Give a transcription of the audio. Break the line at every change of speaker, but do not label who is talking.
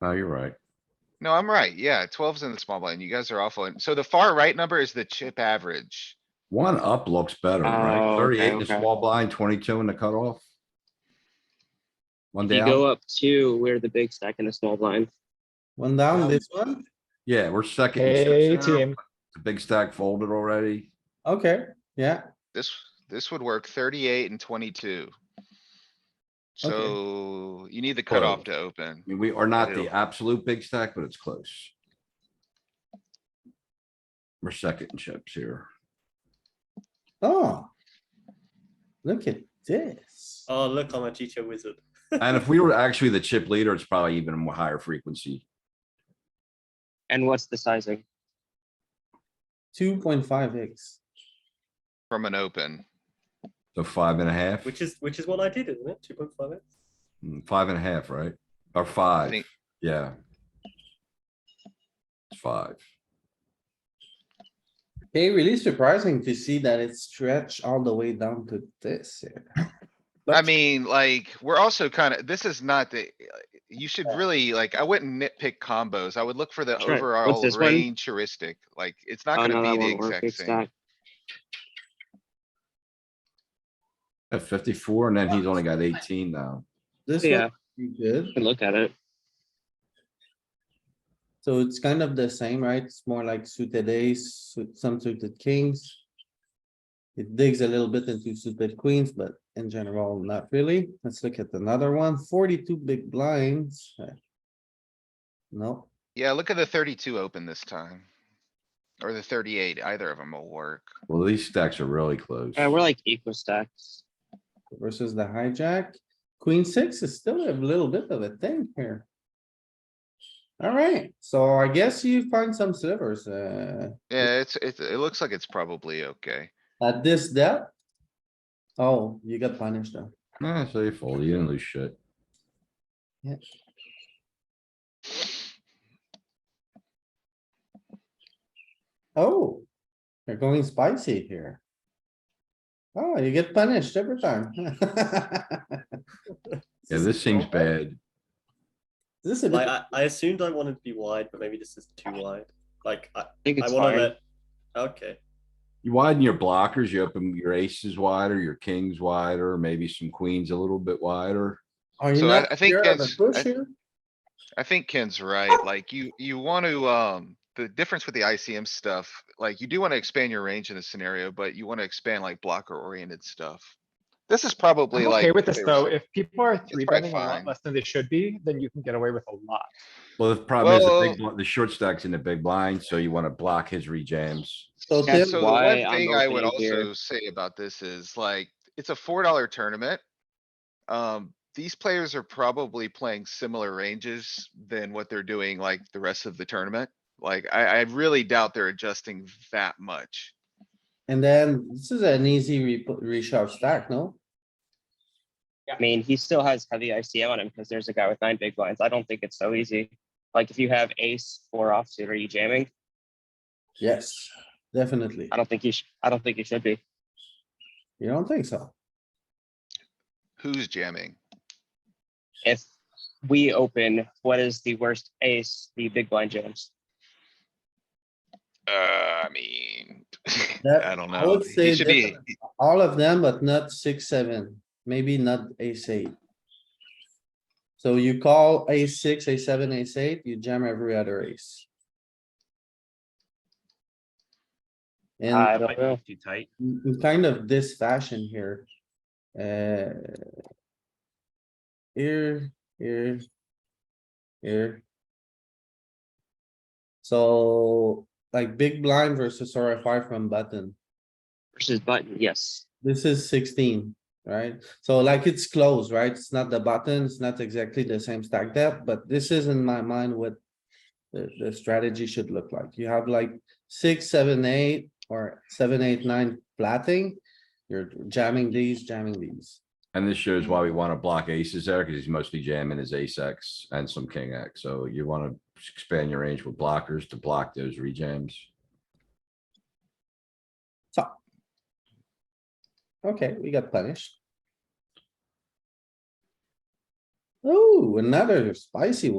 No, you're right.
No, I'm right. Yeah, 12's in the small blind. You guys are awful. And so the far right number is the chip average.
One up looks better,
Oh,
right?
okay,
Thirty-eight in the
okay.
small blind, twenty-two in the cutoff. One
If you go
down.
up two, we're the big stack in the small blind.
One down, this one?
Yeah, we're second. in
Hey,
chips now.
team.
The big stack folded already.
Okay, yeah,
This, this would work thirty-eight and twenty-two. So you need the cutoff to open.
I mean, we are not the
Ew.
absolute big stack, but it's close. We're second in chips here.
oh. Look at this.
Oh, look, I'm a teacher wizard.
And if we were actually the chip leader, it's probably even more higher frequency.
And what's the sizing?
Two point five X.
From an open.
So five and a half,
Which is which is what I did, isn't it? Two point five x.
Mm, five and a half, right? Or five,
think-
yeah. It's Five.
Okay, really surprising to see that it stretched all the way down to this here.
I
That's-
mean, like, we're also kinda, this is not the, you should
Yeah.
really, like, I wouldn't nitpick combos. I would look for the
That's right. What's
overall
this one?
range heuristic. Like, it's not
Oh, no,
gonna be
that
the
won't
exact
work. Big
same.
stack.
At fifty-four, and then he's only got eighteen now.
This
Yeah.
one, you good,
You can look at it.
so it's kind of the same, right? It's more like suited ace, su- some suited kings. It digs a little bit into suited queens, but in general, not really. Let's look at another one. Forty-two big blinds. Uh, No,
Yeah, look at the thirty-two open this time. Or the thirty-eight, either of them will work.
Well, these stacks are really close.
Uh, we're like equal stacks.
versus the hijack. Queen six is still a little bit of a thing here. Alright, so I guess you find some slivers, uh,
Yeah, it's, it, it looks like it's probably okay.
at this depth. Oh, you got punished though.
Nah, so you fold, you didn't lose shit.
Oh, you're going spicy here. Oh, you get punished every time.
Yeah, this seems bad.
This is a
Like
uh,
bit,
I, I assumed I wanted to be wide, but maybe this is too wide. Like I,
I think
I
it's
want to
fine.
let. Okay.
You widen your blockers, you open your aces wider, your kings wider, maybe some queens a little bit wider.
are you
So I-
not
I think
scared of a
that's-
push
I-
here?
I think Ken's
Oh!
right. Like you, you want to, um, the difference with the ICM stuff, like you do want to expand your range in this scenario, but you want to expand like blocker oriented stuff. This is probably
I'm
like.
okay with this
favorite-
though. If people are
probably
three betting a lot
fine.
less than they should be, then you can get away with a lot.
Well, the problem is the
Well-
big, bl- the short stack's in the big blind, so you wanna block his rejams.
So
Yeah,
Tim,
So the
why
one
I'm
thing I would
opening here.
also say about this is like, it's a four dollar tournament. Um, these players are probably playing similar ranges than what they're doing like the rest of the tournament. Like I, I really doubt they're adjusting that much.
and then this is an easy re- reshove stack, no?
I mean, he still has heavy ICM on him because there's a guy with nine big blinds. I don't think it's so easy. Like if you have ace four offsuit, are you jamming?
Yes, definitely.
I don't think you should. I don't think you should be.
You don't think so?
Who's jamming?
If we open, what is the worst ace? The big blind jams.
Uh, I mean,
That-
I don't
I
know.
would say
He should be,
definitely. All of them, but not six, seven, maybe not ace eight. So you call a six, a seven, ace eight, you jam every other ace. And
I don't know.
Too tight.
in in kind of this fashion here. Uh. Here, here. Here. So like big blind versus RFI from button.
Versus button, yes.
This is sixteen, right? So like it's close, right? It's not the button, it's not exactly the same stack depth, but this is in my mind what. The, the strategy should look like. You have like six, seven, eight, or seven, eight, nine flatting. You're jamming these, jamming these.
And this shows why we wanna block aces there, cause he's mostly jamming his ace X and some king X, so you wanna expand your range with blockers to block those rejams.
Okay, we got punished. Oh, another spicy one.